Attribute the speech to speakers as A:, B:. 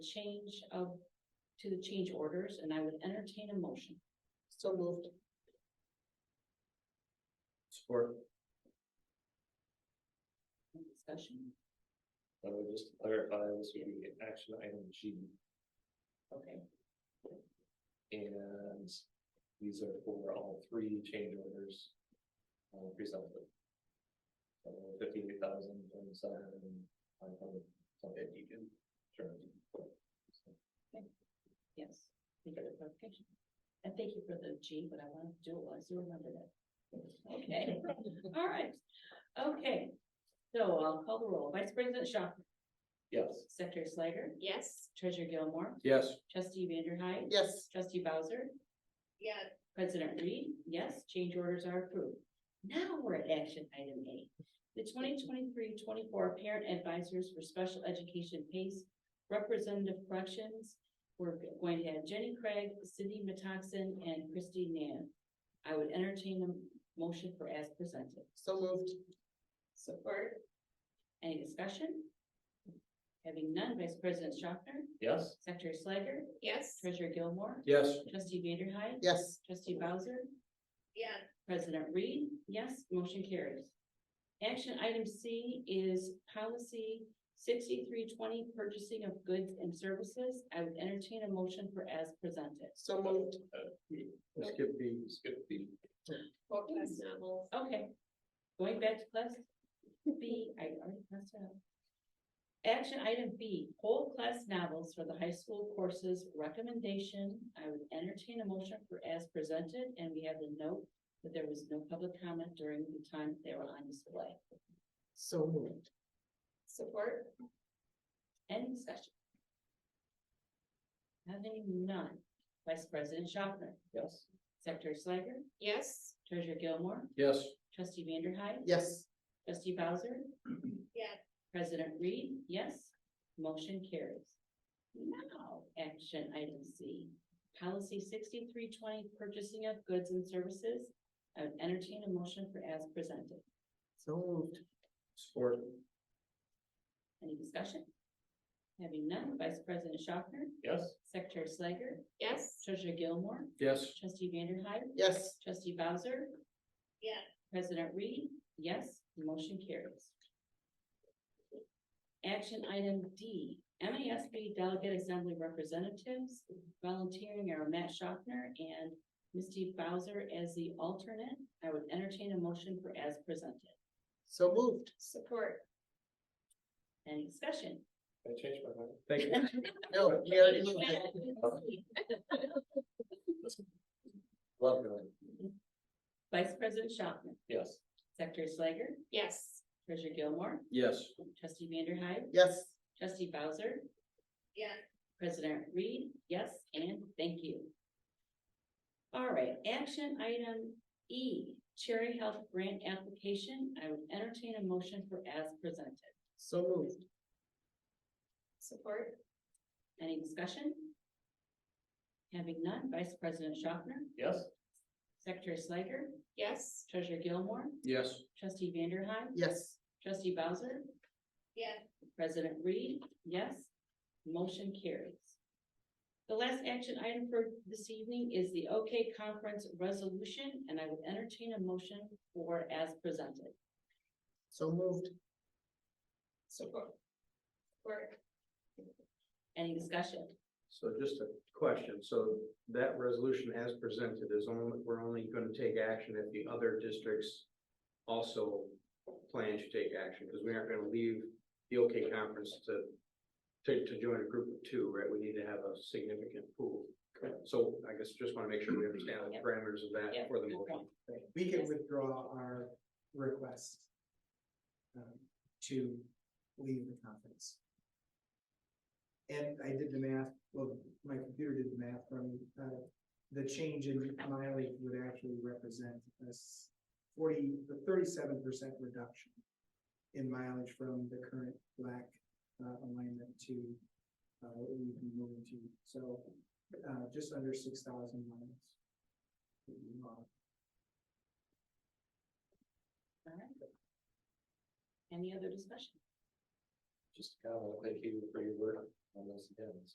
A: change of, to the change orders, and I would entertain a motion.
B: So moved.
C: Support,
A: Any Discussion,
C: I would just clarify, this would be action item G,
A: okay,
C: and these are for all three change orders. Uh, presented. Uh, Fifty-eight thousand, twenty-seven, five hundred, something you can turn.
A: yes, we got a clarification. And thank you for the G, but I wanted to do it was, you remember that. Okay, all right, okay. So I'll call the roll. Vice President Shaw,
C: Yes.
A: Secretary Slager,
B: Yes.
A: Treasurer Gilmore,
C: Yes.
A: Trustee Vanderhyde.
B: Yes.
A: Trustee Bowser,
B: Yeah.
A: President Reed, yes, change orders are approved. Now we're at action item A. The 2023-24 parent advisors for special education PACE representative corrections. We're going to have Jenny Craig, Cindy Metoxen, and Christy Nan. I would entertain a motion for as presented.
B: So moved.
A: Support. Any discussion? Having none, Vice President Schaffner,
C: Yes.
A: Secretary Slager,
B: Yes.
A: Treasurer Gilmore,
C: Yes.
A: Trustee Vanderhyde,
B: Yes.
A: Trustee Bowser,
B: Yeah.
A: President Reed, yes, motion carries. Action item C is policy sixty-three twenty, purchasing of goods and services. I would entertain a motion for as presented.
B: So moved.
C: Uh, Skip the, skip the,
A: class Okay, going back to class B, I already passed out. Action item B, whole class novels for the high school courses recommendation. I would entertain a motion for as presented, and we have the note that there was no public comment during the time they were on display.
B: So moved. Support.
A: Any discussion? Having none, Vice President Schopner,
C: yes.
A: Secretary Slager,
B: Yes.
A: Treasurer Gilmore,
C: Yes.
A: Trustee Vanderhyde,
B: Yes.
A: Trustee Bowser,
B: Yeah.
A: President Reed, yes, motion carries. Now, action item C, policy sixty-three twenty, purchasing of goods and services. I would entertain a motion for as presented.
B: So moved.
C: Support,
A: Any discussion? Having none, Vice President Schopner,
C: yes.
A: Secretary Slager,
B: Yes.
A: Treasurer Gilmore,
C: Yes.
A: Trustee Vanderhyde,
B: Yes.
A: Trustee Bowser?
B: Yeah.
A: President Reed? Yes, motion carries. Action item D, MASB Delegate Assembly Representatives volunteering are Matt Schaffner and Misty Bowser as the alternate. I would entertain a motion for as presented.
B: So moved. Support.
A: Any discussion?
C: I changed my mind. Thank you.
B: No, we already moved it.
C: Love going,
A: Vice President Schaffner,
C: yes.
A: Secretary Slager,
B: Yes.
A: Treasurer Gilmore,
C: Yes.
A: Trustee Vanderhyde,
B: Yes.
A: Trustee Bowser,
B: Yeah.
A: President Reed, yes, and thank you. All right, action item E, Cherry Health Grant Application. I would entertain a motion for as presented.
B: So moved. Support.
A: Any discussion? Having none, Vice President Schaffner,
C: Yes.
A: Secretary Slager,
B: Yes.
A: Treasurer Gilmore,
C: Yes.
A: Trustee Vanderhyde,
B: Yes.
A: Trustee Bowser,
B: Yeah.
A: President Reed, yes. Motion carries. The last action item for this evening is the OK Conference Resolution, and I would entertain a motion for as presented.
B: So moved. Support. Support.
A: Any discussion?
D: So just a question, so that resolution as presented is only, we're only gonna take action if the other districts also plan to take action, because we aren't gonna leave the OK conference to to, to join a group of two, right? We need to have a significant pool.
C: Correct.
D: So I guess just wanna make sure we understand the
A: Yep.
D: parameters of
A: Yep,
D: that for the
A: good
D: motion.
A: point.
E: We can
A: Yes.
E: withdraw our request um, to leave the conference. And I did the math, well, my computer did the math from, uh, the change in mileage would actually represent this forty, the thirty-seven percent reduction in mileage from the current black, uh, alignment to, uh, what we've been moving to. So, uh, just under six thousand miles. would be lost.
A: All right. Any other discussion?
C: Just kind of thank you for your work on this again. It's